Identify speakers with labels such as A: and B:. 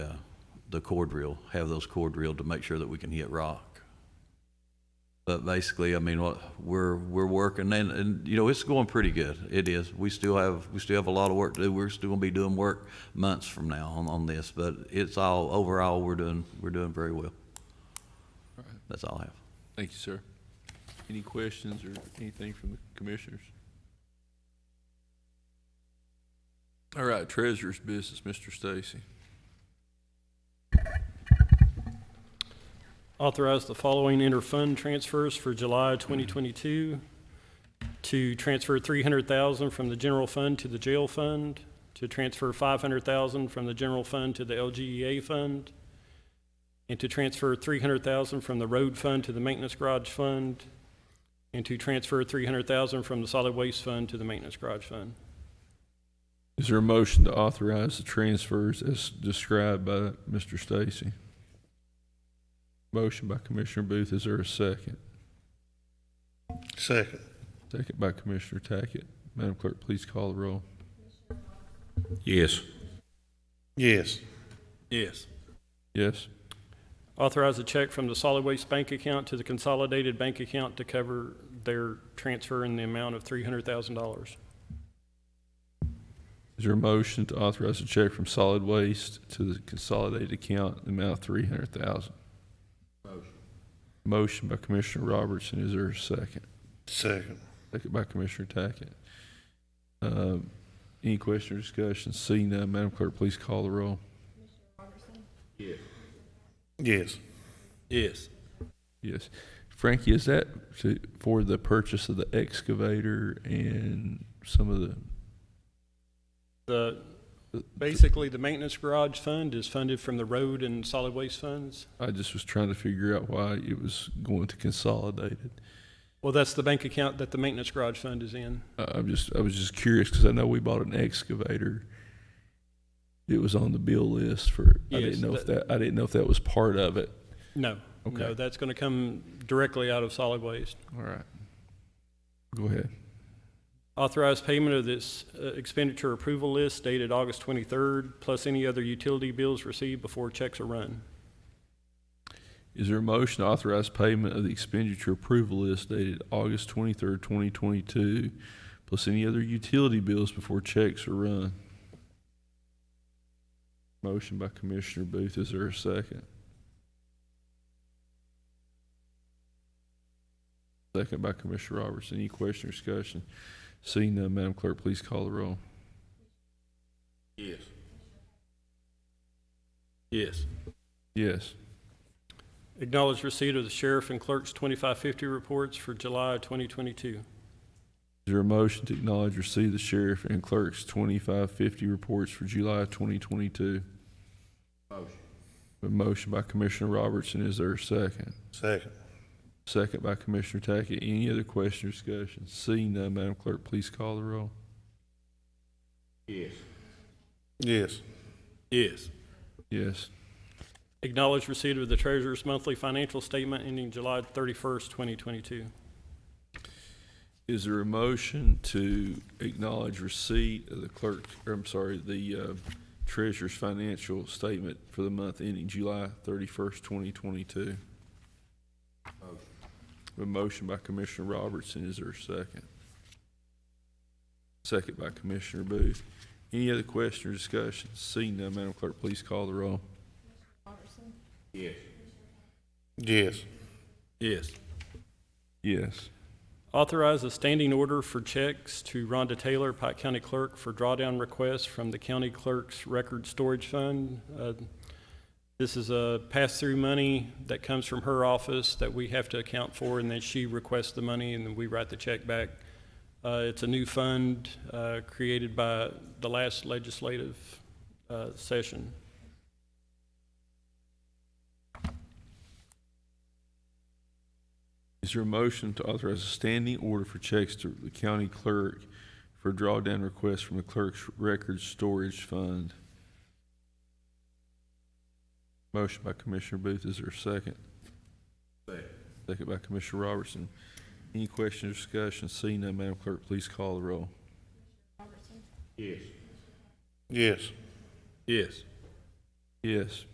A: uh, the cord reel, have those cord reeled to make sure that we can hit rock. But basically, I mean, what, we're, we're working and, and, you know, it's going pretty good. It is. We still have, we still have a lot of work to do. We're still gonna be doing work months from now on, on this, but it's all, overall, we're doing, we're doing very well. That's all I have.
B: Thank you, sir. Any questions or anything from the commissioners? All right, treasurer's business, Mr. Stacy.
C: Authorize the following inter-fund transfers for July 2022. To transfer 300,000 from the general fund to the jail fund, to transfer 500,000 from the general fund to the LGEA fund, and to transfer 300,000 from the road fund to the maintenance garage fund, and to transfer 300,000 from the solid waste fund to the maintenance garage fund.
B: Is there a motion to authorize the transfers as described by Mr. Stacy? Motion by Commissioner Booth, is there a second?
D: Second.
B: Second by Commissioner Tackett. Madam Clerk, please call the roll.
D: Yes. Yes. Yes.
B: Yes,
C: Authorize a check from the solid waste bank account to the consolidated bank account to cover their transfer in the amount of $300,000.
B: is there a motion to authorize a check from solid waste to the consolidated account in the amount of three hundred thousand? Motion. Motion by Commissioner Robertson, is there a second?
D: Second.
B: Second by Commissioner Tackett. Uh, Any question or discussion? Seeing none, Madam Clerk, please call the roll.
D: Yes.
B: Yes. Yes. Frankie, is that to- for the purchase of the excavator and some of the?
C: The,
B: the-
C: basically, the maintenance garage fund is funded from the road and solid waste funds.
B: I just was trying to figure out why it was going to consolidated.
C: Well, that's the bank account that the maintenance garage fund is in.
B: I- I'm just, I was just curious because I know we bought an excavator. It was on the bill list for, I
C: Yes,
B: didn't know if that, I didn't know if that was part of it.
C: No, no,
B: Okay.
C: that's going to come directly out of solid waste.
B: All right. Go ahead.
C: Authorized payment of this uh, expenditure approval list dated August 23rd, plus any other utility bills received before checks are run.
B: Is there a motion to authorize payment of the expenditure approval list dated August twenty-third, twenty twenty-two, plus any other utility bills before checks are run? Motion by Commissioner Booth, is there a second? Second by Commissioner Robertson, any question or discussion? Seeing none, Madam Clerk, please call the roll.
D: Yes. Yes.
B: Yes.
C: Acknowledge receipt of the sheriff and clerk's 2550 reports for July 2022.
B: Is there a motion to acknowledge receipt of the sheriff and clerk's twenty-five fifty reports for July twenty twenty-two? Motion. A motion by Commissioner Robertson, is there a second?
D: Second.
B: Second by Commissioner Tackett, any other question or discussion? Seeing none, Madam Clerk, please call the roll.
D: Yes. Yes.
B: Yes. Yes.
C: Acknowledge receipt of the treasurer's monthly financial statement ending July 31st, 2022.
B: Is there a motion to acknowledge receipt of the clerk, or I'm sorry, the uh, treasurer's financial statement for the month ending July thirty-first, twenty twenty-two? A motion by Commissioner Robertson, is there a second? Second by Commissioner Booth. Any other question or discussion? Seeing none, Madam Clerk, please call the roll.
D: Yes.
B: Yes. Yes.
C: Authorize a standing order for checks to Rhonda Taylor, Pike County Clerk, for drawdown requests from the county clerk's record storage fund. Uh, This is a pass-through money that comes from her office that we have to account for, and then she requests the money, and then we write the check back. Uh, It's a new fund uh, created by the last legislative uh, session.
B: Is there a motion to authorize a standing order for checks to the county clerk for drawdown requests from the clerk's record storage fund? Motion by Commissioner Booth, is there a second? Second. Second by Commissioner Robertson. Any question or discussion? Seeing none, Madam Clerk, please call the roll.
D: Yes.
B: Yes. Yes.